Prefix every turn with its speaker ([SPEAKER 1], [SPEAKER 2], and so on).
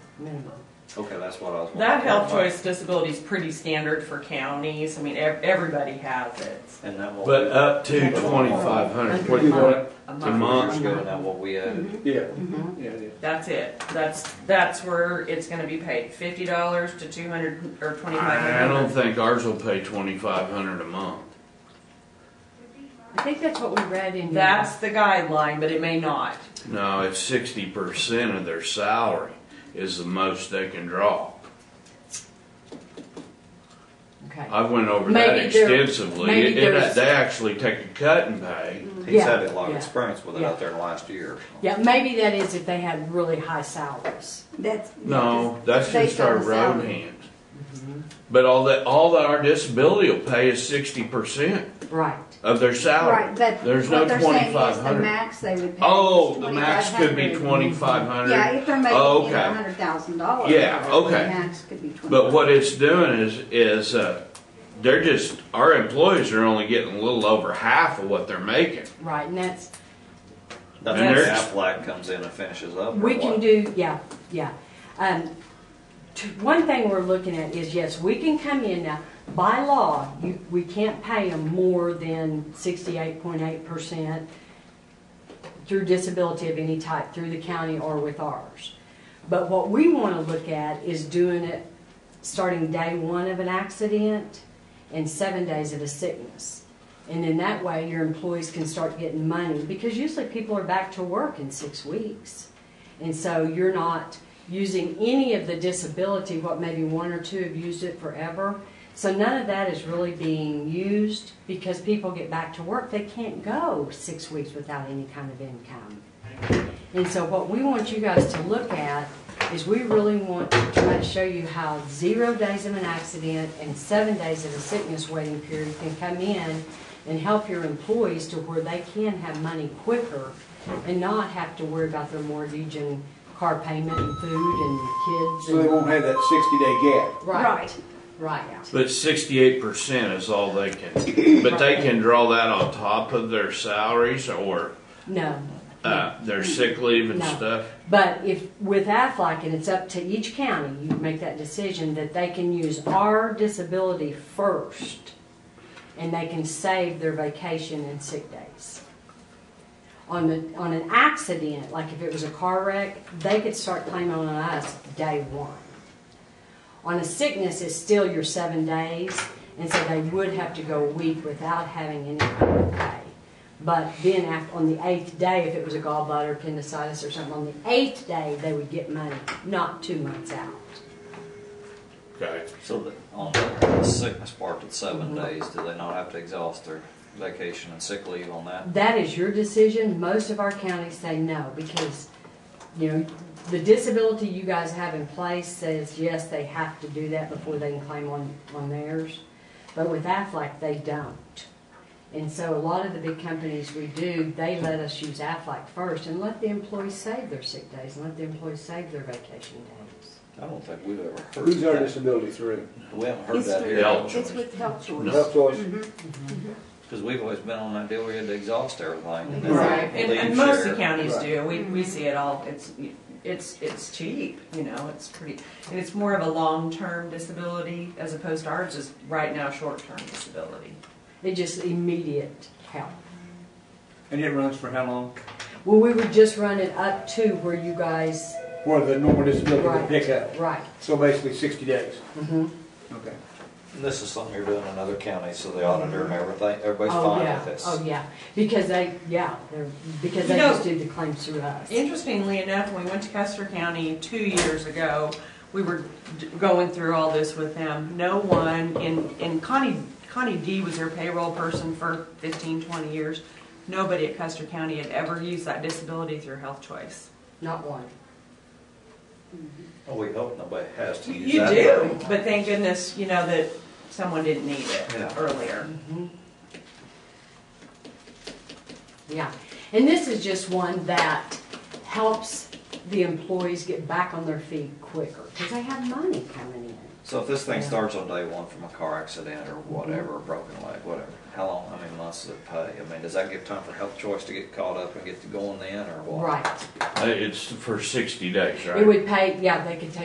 [SPEAKER 1] Okay, that's what I was. wondering.
[SPEAKER 2] That health choice disability is pretty standard for counties. I mean, ev- everybody has it.
[SPEAKER 1] And that what.
[SPEAKER 3] But
[SPEAKER 1] we-
[SPEAKER 3] up to twenty-five hundred, what do you want, it?
[SPEAKER 2] A
[SPEAKER 3] a
[SPEAKER 2] month.
[SPEAKER 1] Years
[SPEAKER 3] month?
[SPEAKER 1] ago, and that what we had.
[SPEAKER 4] Yeah, yeah, yeah.
[SPEAKER 2] That's it. That's, that's where it's gonna be paid. Fifty dollars to two hundred or twenty-five
[SPEAKER 3] I I
[SPEAKER 2] hundred.
[SPEAKER 3] don't think ours will pay twenty-five hundred a month.
[SPEAKER 5] I think that's what we read in.
[SPEAKER 2] That's the guideline, but it may not.
[SPEAKER 3] No, it's sixty percent of their salary is the most they can draw.
[SPEAKER 5] Okay.
[SPEAKER 3] I went over that
[SPEAKER 5] Maybe there-
[SPEAKER 3] extensively.
[SPEAKER 5] maybe
[SPEAKER 3] It- it-
[SPEAKER 5] there's-
[SPEAKER 3] They actually take a cut and pay.
[SPEAKER 1] He's
[SPEAKER 5] Yeah,
[SPEAKER 1] had a lot of
[SPEAKER 5] yeah,
[SPEAKER 1] experience with it out there in the last year.
[SPEAKER 5] Yeah, maybe that is if they had really high salaries.
[SPEAKER 6] That's.
[SPEAKER 3] No, that's
[SPEAKER 6] Based
[SPEAKER 3] just our
[SPEAKER 6] on the
[SPEAKER 3] road
[SPEAKER 6] salary.
[SPEAKER 3] hands. But all that, all that our disability will pay is sixty percent
[SPEAKER 5] Right.
[SPEAKER 3] of their
[SPEAKER 6] Right,
[SPEAKER 3] salary.
[SPEAKER 6] but
[SPEAKER 3] There's
[SPEAKER 6] what
[SPEAKER 3] no
[SPEAKER 6] they're saying is the
[SPEAKER 3] 2,500.
[SPEAKER 6] max they would pay.
[SPEAKER 3] Oh,
[SPEAKER 6] is
[SPEAKER 3] the max could be
[SPEAKER 6] 2,500.
[SPEAKER 3] twenty-five hundred.
[SPEAKER 6] Yeah, if they're making,
[SPEAKER 3] Oh,
[SPEAKER 6] you know,
[SPEAKER 3] okay.
[SPEAKER 6] a hundred thousand dollars.
[SPEAKER 3] Yeah, okay.
[SPEAKER 6] The max could be twenty.
[SPEAKER 3] But what it's doing is, is uh, they're just, our employees are only getting a little over half of what they're making.
[SPEAKER 5] Right, and that's
[SPEAKER 1] That's
[SPEAKER 3] And
[SPEAKER 1] when
[SPEAKER 3] they're-
[SPEAKER 1] Aflac comes in and finishes up. or
[SPEAKER 5] we
[SPEAKER 1] what?
[SPEAKER 5] can do. Yeah, yeah. Um, t- one thing we're looking at is yes, we can come in now. By law, you, we can't pay them more than sixty-eight point eight percent through disability of any type through the county or with ours. But what we want to look at is doing it starting day one of an accident and seven days of a sickness. And then that way, your employees can start getting money, because usually people are back to work in six weeks. And so you're not using any of the disability, what maybe one or two have used it forever. So none of that is really being used because people get back to work. They can't go six weeks without any kind of income. And so what we want you guys to look at is we really want to try to show you how zero days of an accident and seven days of a sickness waiting period can come in and help your employees to where they can have money quicker and not have to worry about their mortgage and car payment and food and kids.
[SPEAKER 4] So they
[SPEAKER 5] and-
[SPEAKER 4] won't have that sixty day gap.
[SPEAKER 5] Right, right.
[SPEAKER 3] But sixty-eight percent is all they can, but they can draw that on top of their salaries or,
[SPEAKER 5] No,
[SPEAKER 3] uh, their sick leave and
[SPEAKER 5] No.
[SPEAKER 3] stuff.
[SPEAKER 5] But if, with Aflac, and it's up to each county, you make that decision that they can use our disability first, and they can save their vacation and sick days. On the, on an accident, like if it was a car wreck, they could start claiming on us day one. On a sickness, it's still your seven days, and so they would have to go a week without having any kind of pay. But then after, on the eighth day, if it was a gallbladder appendicitis or something, on the eighth day, they would get money, not two months out.
[SPEAKER 3] Okay.
[SPEAKER 1] So that on the sickness part, it's seven
[SPEAKER 5] Mm-hmm.
[SPEAKER 1] days. Do they not have to exhaust their vacation and sick leave on that?
[SPEAKER 5] That is your decision. Most of our counties say no because, you know, the disability you guys have in place says, yes, they have to do that before they can claim on, on theirs. But with Aflac, they don't. And so a lot of the big companies we do, they let us use Aflac first and let the employees save their sick days and let the employees save their vacation days.
[SPEAKER 1] I don't think we've ever heard.
[SPEAKER 4] Who's our
[SPEAKER 1] that.
[SPEAKER 4] disability through?
[SPEAKER 1] We haven't heard
[SPEAKER 6] It's
[SPEAKER 1] that
[SPEAKER 6] with-
[SPEAKER 1] here.
[SPEAKER 3] Yeah.
[SPEAKER 6] It's with health choice.
[SPEAKER 4] Health choice.
[SPEAKER 1] Because we've always been on that deal where you had to exhaust everything. and then
[SPEAKER 2] Right.
[SPEAKER 1] leave
[SPEAKER 2] And, and most
[SPEAKER 1] share.
[SPEAKER 2] of the counties
[SPEAKER 4] Right.
[SPEAKER 2] do. We, we see it all. It's, it's, it's cheap, you know, it's pretty, and it's more of a long-term disability as opposed to ours is right now short-term disability.
[SPEAKER 5] It just immediate help.
[SPEAKER 4] And it runs for how long?
[SPEAKER 5] Well, we would just run it up to where you guys,
[SPEAKER 4] Where the normal disability would
[SPEAKER 5] right,
[SPEAKER 4] pick up.
[SPEAKER 5] right.
[SPEAKER 4] So basically sixty days.
[SPEAKER 5] Mhm.
[SPEAKER 4] Okay.
[SPEAKER 1] And This is something you're doing in other counties, so the auditor and everything, everybody's
[SPEAKER 5] Oh
[SPEAKER 1] fine
[SPEAKER 5] yeah!
[SPEAKER 1] with this.
[SPEAKER 5] Oh, yeah, because they, yeah, they're, because they
[SPEAKER 2] You know-
[SPEAKER 5] just do the claims through us.
[SPEAKER 2] Interestingly enough, when we went to Custer County two years ago, we were d- going through all this with them. No one, in and Connie, Connie D was their payroll person for 15, 20 years. Nobody at Custer County had ever used that disability through health choice.
[SPEAKER 5] Not one.
[SPEAKER 1] Well, Oh, we hope nobody has to use
[SPEAKER 2] You
[SPEAKER 1] that.
[SPEAKER 2] do, but thank goodness, you know, that someone didn't need
[SPEAKER 1] Yeah.
[SPEAKER 2] it earlier.
[SPEAKER 5] Yeah, and this is just one that helps the employees get back on their feet quicker, because they have money coming in.
[SPEAKER 1] So if this thing
[SPEAKER 5] Yeah.
[SPEAKER 1] starts on day one from a car accident or whatever, a broken leg, whatever, how long, how many months does it pay? I mean, does that give time for health choice to get caught up and get to going then, or what?
[SPEAKER 5] Right.
[SPEAKER 3] Uh, It's for sixty days, right?
[SPEAKER 5] It would pay, yeah, they could take